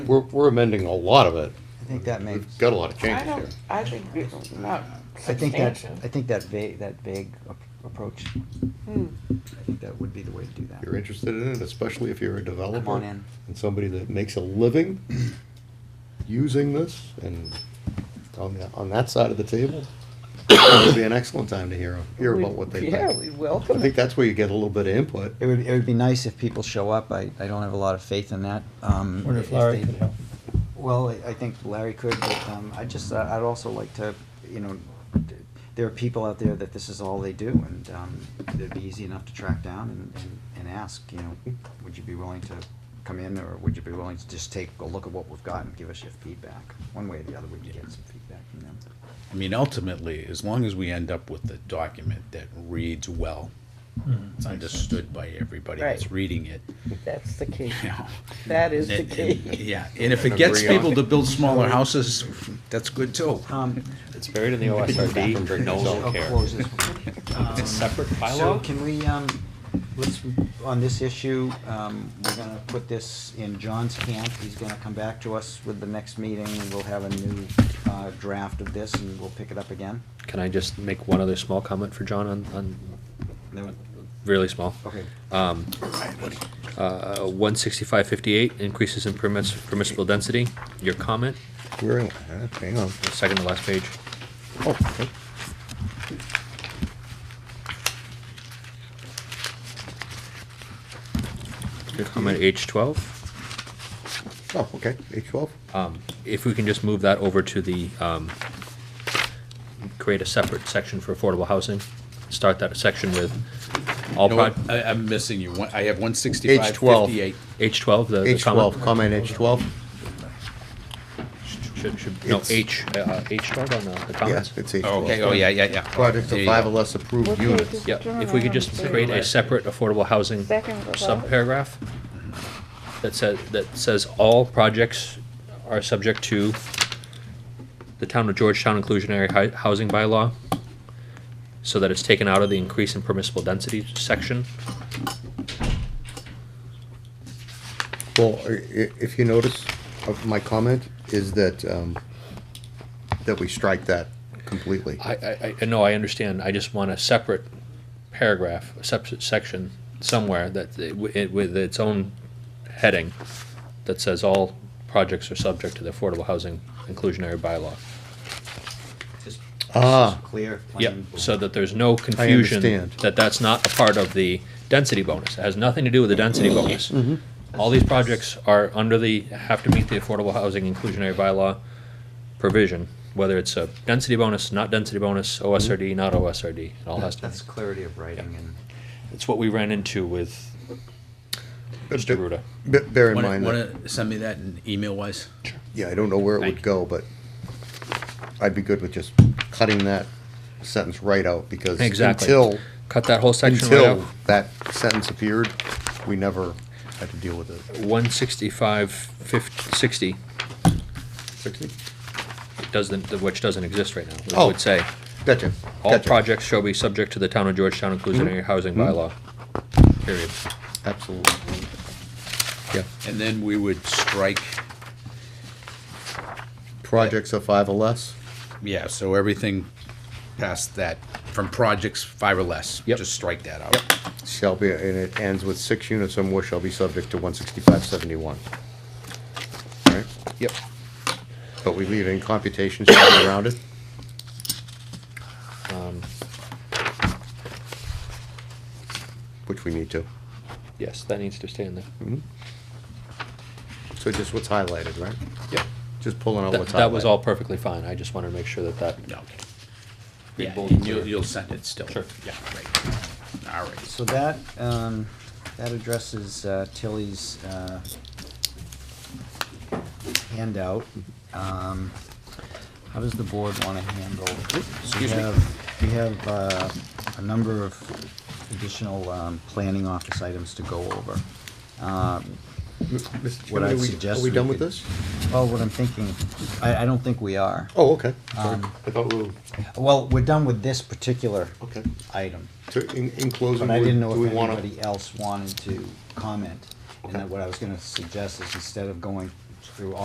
We're, we're amending a lot of it. I think that makes, We've got a lot of I changes here. don't, I think it's not I think that, substantial. I think that vague, that vague ap- approach, Hmm. I think that would be the way to do If you're that. interested in it, especially if you're a Come on developer in. and somebody that makes a living using this and on, the- on that side of the table, it would be an excellent time to hear, hear about what they Yeah, think. we I welcome think it. that's where you get a little bit of input. It would, it would be nice if people show up. I, I don't have a lot of faith in that. Um, Wonder if they- Larry could help. Well, I I think Larry could, but um, I just, I- I'd also like to, you know, d- there are people out there that this is all they do, and um, it'd be easy enough to track down and- and, and ask, you know, would you be willing to come in, or would you be willing to just take a look at what we've got and give us your feedback? One way or the other, we can get some feedback from them. I mean, ultimately, as long as we end up with a document that reads well, Mm-hmm. it's understood by everybody that's Right. reading it, That's the key. you know. That is the And- and- key. Yeah, and if it And gets agree on people it. to build smaller houses, that's good too. Um, It's buried in the OSRD, no one I'll will care. close this one. It's a separate Um, So bylaw? can we, um, let's, on this issue, um, we're gonna put this in John's camp. He's gonna come back to us with the next meeting, and we'll have a new, uh, draft of this, and we'll pick it up again. Can I just make one other small comment for John on, on, Then- really small? Okay, Um, uh, one sixty-five fifty-eight, increases in permiss- permissible density, your comment, We're in, uh, hang on. second to last page. Oh, okay. Your comment H twelve, Oh, okay, H twelve? um, if we can just move that over to the, um, create a separate section for affordable housing, start that section with all You know what? proj- I, I'm missing you. One- I have one sixty-five, H12. fifty-eight. H twelve, the. the H twelve, comment? comment H twelve? Should, should, no, It's- H, uh, H twelve on the- the comments? Yes, it's H twelve. Okay, oh, yeah, yeah, yeah. Projects There of you five go. or less approved What page units. is- Yeah, if we could just create a separate affordable housing Second below. subparagraph that says, that says all projects are subject to the town of Georgetown inclusionary Hi- housing bylaw, so that it's taken out of the increase in permissible density section. Well, i- i- if you notice, of my comment is that, um, that we strike that completely. I, I, I know, I understand, I just want a separate paragraph, a separate section somewhere that, it- it- with its own heading that says all projects are subject to the affordable housing inclusionary bylaw. just, Ah. just clear, Yep, plain. so that there's no confusion, understand. that that's not a part of the density bonus. It has nothing to do with the density bonus. All these projects are under the, have to meet the affordable housing inclusionary bylaw provision, whether it's a density bonus, not density bonus, OSRD, not OSRD, it all has to. That's clarity of writing and. It's what we ran into with Mr. Ruda. Be- Bear in Wanna, mind, that- wanna send me that in email wise? yeah, I don't know where it Thank would you. go, but I'd be good with just cutting that sentence right out, because Exactly. until, Cut that whole section right until out. that sentence appeared, we never had to deal with it. One sixty-five fifty, sixty, Sixty? doesn't, which doesn't exist right now, Oh. it would say. Gotcha. All gotcha. projects shall be subject to the town of Georgetown inclusionary housing bylaw, period. Absolutely. Yeah. And then we would strike, Projects of five or less? yeah, so everything past that, from projects five or less. Yep. Just strike that out. Shall be, and it ends with six units or more shall be subject to one sixty-five seventy-one. Right? Yep. But we leave in computations shall be rounded? Um, Which we need to. Mm-hmm. Yes, that needs to stay in there. So just what's highlighted, right? Yep. Just pulling out That, what's highlighted. that was all perfectly fine, I just wanted to make sure that that, No, Okay. Big Yeah, bold and clear. you'll, you'll send it still. Sure. Yeah, right. All right. So that, um, that addresses uh, Tilly's, uh, handout. Um, how does the board wanna handle? Excuse me. We have, uh, a number of additional, um, planning office items to go over. Um, Mr. what Chairman, I are we- suggest Are we we done with could- this? well, what I'm thinking, I, I don't think we are. Oh, okay. Sorry. Um, I thought we were, Well, we're done with this particular okay. item. So in, in closing, But we- I didn't do know we if wanna? anybody else wanted to comment. And Okay. that what I was gonna suggest is instead of going through all